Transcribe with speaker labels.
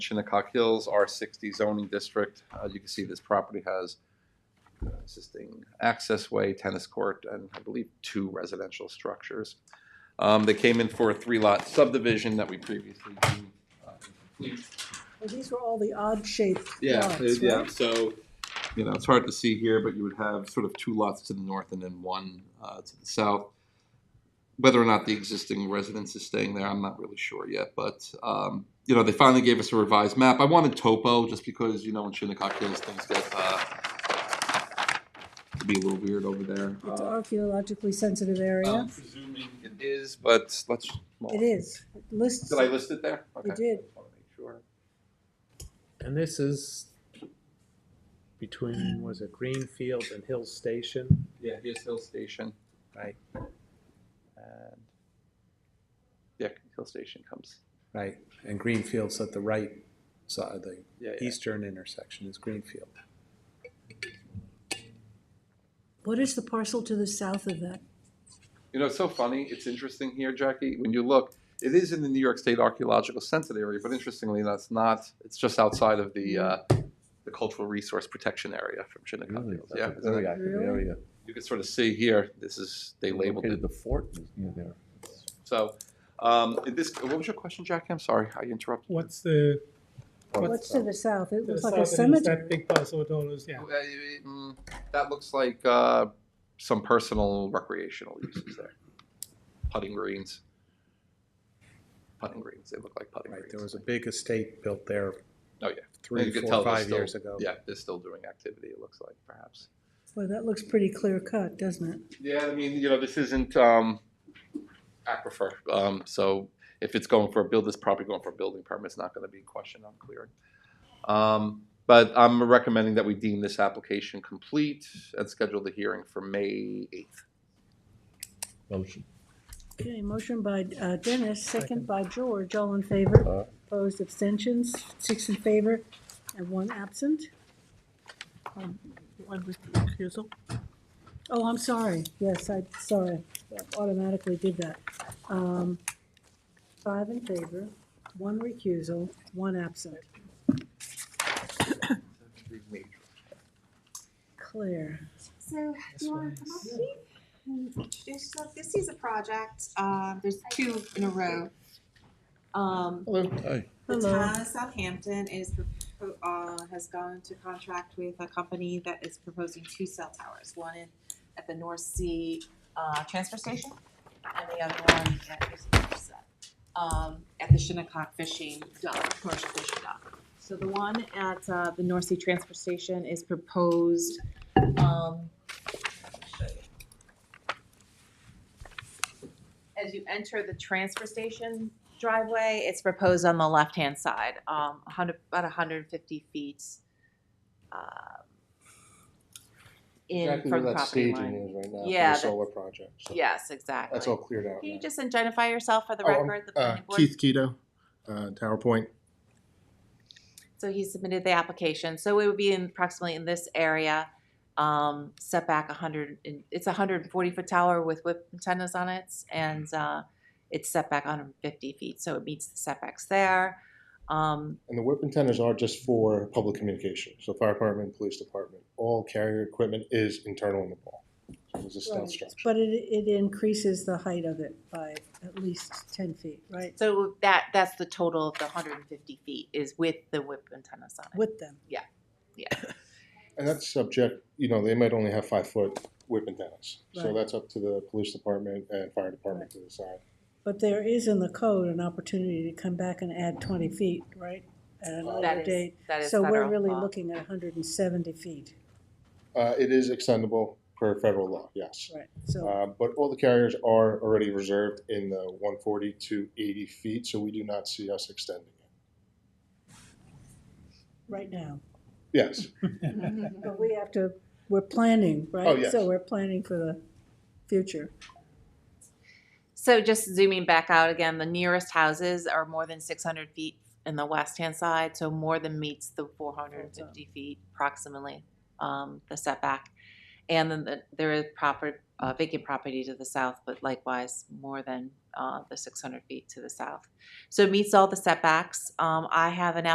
Speaker 1: Shinnecock Hills, R60 zoning district. As you can see, this property has uh, existing access way, tennis court, and I believe two residential structures. Um, They came in for a three-lot subdivision that we previously deemed uh, incomplete.
Speaker 2: Well, These were all the odd shaped
Speaker 1: Yeah,
Speaker 2: lots,
Speaker 1: it- yeah,
Speaker 2: right?
Speaker 1: so, you know, it's hard to see here, but you would have sort of two lots to the north and then one uh, to the south. Whether or not the existing residence is staying there, I'm not really sure yet, but, um, you know, they finally gave us a revised map. I wanted topo, just because, you know, in Shinnecock Hills, things get, uh, to be a little weird over there.
Speaker 2: It's
Speaker 1: Uh,
Speaker 2: archaeologically sensitive
Speaker 1: I'm
Speaker 2: area.
Speaker 1: presuming it is, but let's. well,
Speaker 2: It is. It lists,
Speaker 1: Did I list it there?
Speaker 2: You
Speaker 1: Okay.
Speaker 2: did.
Speaker 1: Just wanna make Sure.
Speaker 3: And this is between, was it Greenfield and Hill Station?
Speaker 1: Yeah, here's Hill Station.
Speaker 3: Right.
Speaker 1: And yeah, Hill Station comes.
Speaker 3: Right, and Greenfield's at the right side, the
Speaker 1: Yeah, yeah.
Speaker 3: eastern intersection is Greenfield.
Speaker 2: what is the parcel to the south of that?
Speaker 1: You know, it's so funny. It's interesting here, Jackie. When you look, it is in the New York State Archaeological Census area, but interestingly, that's not. It's just outside of the uh, the Cultural Resource Protection Area from Shinnecock
Speaker 4: Really?
Speaker 1: Hills.
Speaker 4: That's
Speaker 1: Yeah,
Speaker 4: a
Speaker 1: isn't
Speaker 4: very
Speaker 1: it?
Speaker 4: active
Speaker 2: Really?
Speaker 4: area.
Speaker 1: you can sort of see here. This is they labeled
Speaker 4: Located
Speaker 1: it.
Speaker 4: The fort is near there.
Speaker 1: So, um, in this what was your question, Jackie? I'm sorry, I interrupted.
Speaker 5: What's the,
Speaker 2: What's to the south? It
Speaker 5: the
Speaker 2: looks
Speaker 5: south
Speaker 2: like a
Speaker 5: end is that
Speaker 2: cemetery.
Speaker 5: big parcel of dollars, yeah.
Speaker 1: Uh, mm, That looks like uh, some personal recreational uses there. Putting greens. Putting greens, they look like putting
Speaker 3: Right,
Speaker 1: greens.
Speaker 3: there was a big estate built there.
Speaker 1: Oh, yeah. And
Speaker 3: Three,
Speaker 1: you can
Speaker 3: four,
Speaker 1: tell they're
Speaker 3: five
Speaker 1: still-
Speaker 3: years ago.
Speaker 1: Yeah, they're still doing activity, it looks like, perhaps.
Speaker 2: Well, that looks pretty clear cut, doesn't it?
Speaker 1: Yeah, I mean, you know, this isn't um, aquifer, um, so if it's going for a build, it's probably going for a building permit, it's not gonna be questioned on clearing. Um, but I'm recommending that we deem this application complete and schedule the hearing for May eighth.
Speaker 4: Motion.
Speaker 2: Okay, motion by uh, Dennis, second by George, all in favor.
Speaker 4: Uh,
Speaker 2: Opposed, abstentions, six in favor and one absent. Um, One with refusal. Oh, I'm sorry. Yes, I, sorry, automatically did that. Um, Five in favor, one recusal, one absent. Claire,
Speaker 6: So, do you wanna come up, Steve? And introduce yourself? This is a project, uh, there's two in a row. Um,
Speaker 4: Hi.
Speaker 6: the
Speaker 2: Hello.
Speaker 6: town of Southampton is, propo- uh, has gone to contract with a company that is proposing two cell towers. One in, at the North Sea, uh, transfer station, and the other one at, Dorset, um, at the Shinnecock Fishing Dock, commercial fishing dock. So the one at, uh, the North Sea Transfer Station is proposed, um, as you enter the transfer station driveway, it's proposed on the left-hand side, um, a hundred, about hundred and fifty feet, um, in
Speaker 3: Exactly where
Speaker 6: from the
Speaker 3: that
Speaker 6: property
Speaker 3: staging
Speaker 6: line.
Speaker 3: is right now, for the
Speaker 6: Yeah, that-
Speaker 3: solar project. so
Speaker 6: Yes, exactly.
Speaker 3: That's all cleared out
Speaker 6: Can you
Speaker 3: now.
Speaker 6: just identify yourself for the
Speaker 7: Oh, I'm,
Speaker 6: record? the
Speaker 7: Uh,
Speaker 6: planning board?
Speaker 7: Keith Keto, uh, Tower Point.
Speaker 6: So he submitted the application, so it would be in approximately in this area, um, setback hundred, it's a hundred and forty foot tower with whip antennas on it, and, uh, it's setback hundred and fifty feet, so it meets the setbacks there. Um,
Speaker 7: And the whip antennas are just for public communication. So fire department, police department, all carrier equipment is internal in the wall. So it's a
Speaker 2: Right.
Speaker 7: stealth structure.
Speaker 2: but it, it increases the height of it by at least ten feet, right?
Speaker 6: so that, that's the total of the hundred and fifty feet is with the whip antennas on it.
Speaker 2: With them.
Speaker 7: And that's subject, you know, they might only have five foot whip antennas. So
Speaker 2: Right.
Speaker 7: that's up to the police department and fire department to decide.
Speaker 2: But there is in the code an opportunity to come back and add twenty feet, right? At
Speaker 6: That
Speaker 2: another
Speaker 6: is-
Speaker 2: date.
Speaker 6: that is
Speaker 2: So we're
Speaker 6: federal
Speaker 2: really
Speaker 6: law.
Speaker 2: looking at hundred and seventy feet,
Speaker 7: Uh, it is extendable per federal law, yes.
Speaker 2: right? So,
Speaker 7: Uh, but all the carriers are already reserved in the 140 to 80 feet, so we do not see us extending it.
Speaker 2: right now.
Speaker 7: Yes.
Speaker 2: But we have to, we're planning, right?
Speaker 7: Oh, yes.
Speaker 2: So we're planning for the future.
Speaker 6: So just zooming back out again, the nearest houses are more than six hundred feet in the west-hand side, so more than meets the four hundred and fifty feet approximately, um, the setback. And then the- there is proper, uh, vacant property to the south, but likewise, more than, uh, the six hundred feet to the south. So it meets all the setbacks. Um, I have an